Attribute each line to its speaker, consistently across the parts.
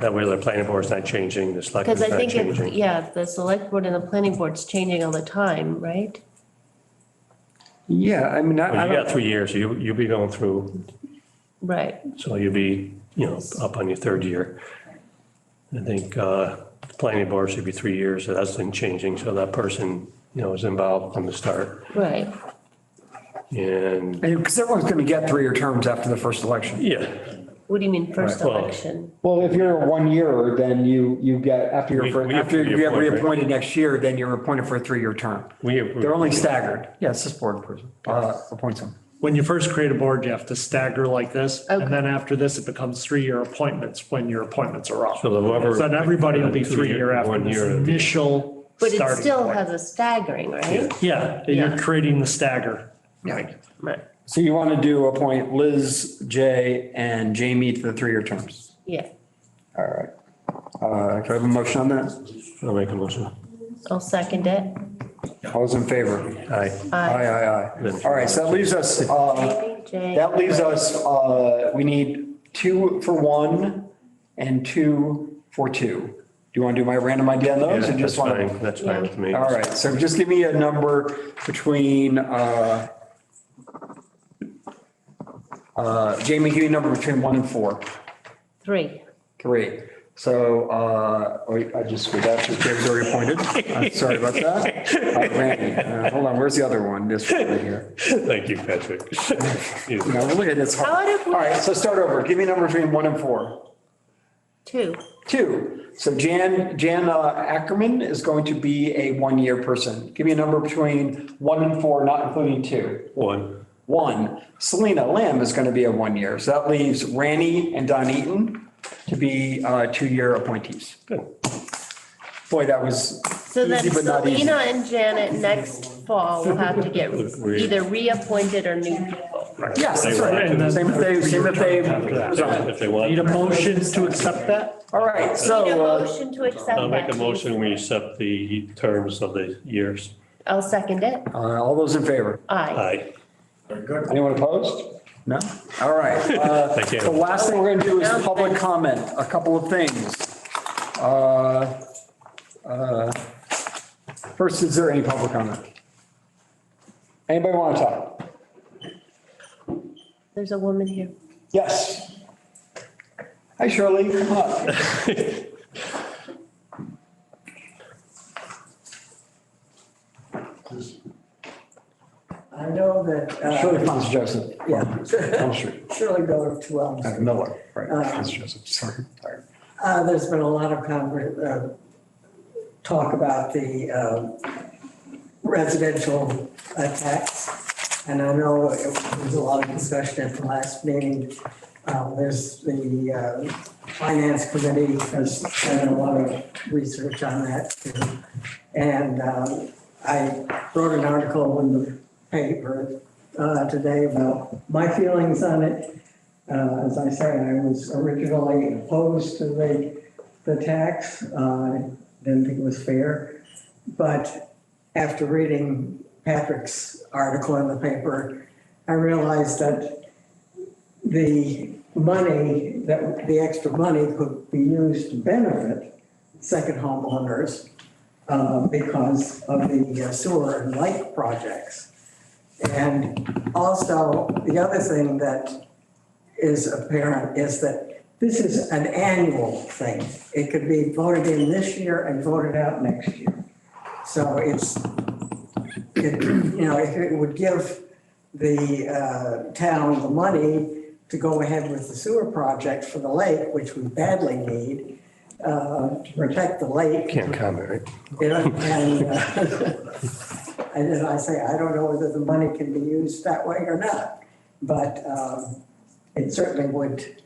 Speaker 1: That way the planning board's not changing, the
Speaker 2: Because
Speaker 1: selectmen's
Speaker 2: I
Speaker 1: not
Speaker 2: think, it-
Speaker 1: changing.
Speaker 2: yeah, the select board and the planning board's changing all the time, right?
Speaker 3: Yeah, I mean, I, I
Speaker 1: Well, You got
Speaker 3: don't,
Speaker 1: three years, you, you'll be going through,
Speaker 2: Right,
Speaker 1: so you'll be, you know, up on your third year. I think, uh, the planning board should be three years, so that's been changing, so that person, you know, is involved from the start.
Speaker 2: right.
Speaker 1: And,
Speaker 3: because everyone's going to get three-year terms after the first election.
Speaker 1: yeah,
Speaker 2: What do you mean first
Speaker 1: Right, well-
Speaker 2: election?
Speaker 3: Well, if you're a one-year, then you, you get, after your,
Speaker 1: We-
Speaker 3: fir-
Speaker 1: we
Speaker 3: after you get
Speaker 1: reappoint, right? Mm-hmm.
Speaker 3: reappointed next year, then you're appointed for a three-year term.
Speaker 1: we.
Speaker 3: They're only staggered. Yes, this board person, uh, appoints them.
Speaker 4: When you first create a board, you have to stagger like this. And then after this, it becomes three-year appointments when your appointments are up.
Speaker 1: So the whoever-
Speaker 4: So Then everybody will be
Speaker 1: Two
Speaker 4: three-year
Speaker 1: year-
Speaker 4: after
Speaker 1: one
Speaker 4: this
Speaker 1: year.
Speaker 4: initial
Speaker 2: But it
Speaker 4: starting
Speaker 2: still
Speaker 4: point.
Speaker 2: has a staggering, right?
Speaker 4: Yeah, and
Speaker 2: Yeah.
Speaker 4: you're creating the stagger.
Speaker 3: Yeah.
Speaker 2: Right,
Speaker 3: So you want to do appoint Liz, Jay, and Jamie to the three-year terms.
Speaker 2: yeah,
Speaker 3: All right. Uh, Can I have a motion on that?
Speaker 1: I'll make a motion.
Speaker 2: I'll second it.
Speaker 3: All those in favor?
Speaker 1: Aye.
Speaker 3: Aye,
Speaker 2: Aye.
Speaker 3: aye, aye. All right, so that leaves us, uh,
Speaker 2: Jay?
Speaker 3: That leaves us, uh, we need two for one and two for two. Do you want to do my random idea on
Speaker 1: Yeah,
Speaker 3: those or
Speaker 1: That's
Speaker 3: just want to?
Speaker 1: fine, that's fine with me.
Speaker 3: All right, so just give me a number between, uh, uh, Jamie, give me a number between one and four.
Speaker 2: Three.
Speaker 3: Great. So, uh, wait, I just, screwed that, Dave's already appointed. I'm Sorry about that. Uh, Randy, uh, Hold on, where's the other one? This one right here.
Speaker 1: Thank you, Patrick.
Speaker 3: No, really, it's
Speaker 2: How
Speaker 3: hard.
Speaker 2: did we,
Speaker 3: All right, so start over. Give me a number between one and four.
Speaker 2: two,
Speaker 3: Two, so Jan, Jan uh, Ackerman is going to be a one-year person. Give me a number between one and four, not including two.
Speaker 1: One,
Speaker 3: One, Selena Lamb is going to be a one-year. So that leaves Ranny and Don Eaton to be uh, two-year appointees.
Speaker 1: good.
Speaker 3: Boy, that was
Speaker 2: so then
Speaker 3: easy but not easy.
Speaker 2: Selena and Janet next fall will have to get
Speaker 1: Re-
Speaker 2: either reappointed or new people.
Speaker 3: Yes, that's right.
Speaker 4: And then-
Speaker 3: Same if they, same if they.
Speaker 1: If they want.
Speaker 4: Need a motion to accept that?
Speaker 3: All right,
Speaker 2: Need a
Speaker 3: so uh,
Speaker 2: motion to accept that.
Speaker 1: I'll make a
Speaker 2: please.
Speaker 1: motion, we accept the terms of the years.
Speaker 2: I'll second it.
Speaker 3: uh, all those in favor?
Speaker 2: Aye.
Speaker 1: Aye.
Speaker 3: Anyone opposed? No? All right. uh,
Speaker 1: Thank you.
Speaker 3: The last thing we're going to do is public comment, a couple of things. Uh, uh, First, is there any public comment? Anybody want to talk?
Speaker 2: There's a woman here.
Speaker 3: Yes. Hi Shirley, come up.
Speaker 5: I know that,
Speaker 3: Shirley
Speaker 5: uh,
Speaker 3: Ponce Joseph.
Speaker 5: yeah,
Speaker 3: Elm Street.
Speaker 5: Shirley Miller, two Elms.
Speaker 3: Uh, Miller, right, Ponce Joseph, sorry. sorry.
Speaker 5: Uh, there's been a lot of conver, uh, talk about the, um residential uh, tax. And I know it was a lot of discussion at the last meeting. Um, there's the, uh, finance committee has done a lot of research on that too. And, um, I wrote an article in the paper, uh, today about my feelings on it. Uh, as I say, I was originally opposed to the, the tax, uh, I didn't think it was fair. But after reading Patrick's article in the paper, I realized that the money, that the extra money could be used to benefit second homeowners uh, because of the uh, sewer and light projects. And also, the other thing that is apparent is that this is an annual thing. It could be voted in this year and voted out next year. So it's, it, you know, it it would give the uh, town the money to go ahead with the sewer project for the lake, which we badly need, uh, to protect the lake.
Speaker 1: comment, right?
Speaker 5: You know, and, uh, and as I say, I don't know whether the money can be used that way or not, but, um, it certainly would,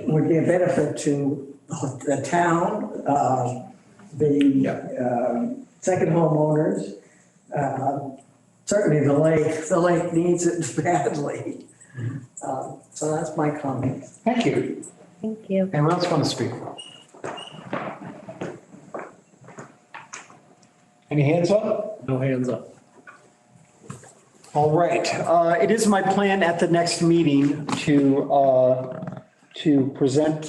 Speaker 5: would be a benefit to the town, um, the, um, second homeowners, uh, certainly the lake, the lake needs it badly. Uh, So that's my comment.
Speaker 3: Thank you.
Speaker 2: Thank you.
Speaker 3: Anyone else want to speak? Any hands up?
Speaker 4: No hands up.
Speaker 3: All right, uh, it is my plan at the next meeting to, uh, to present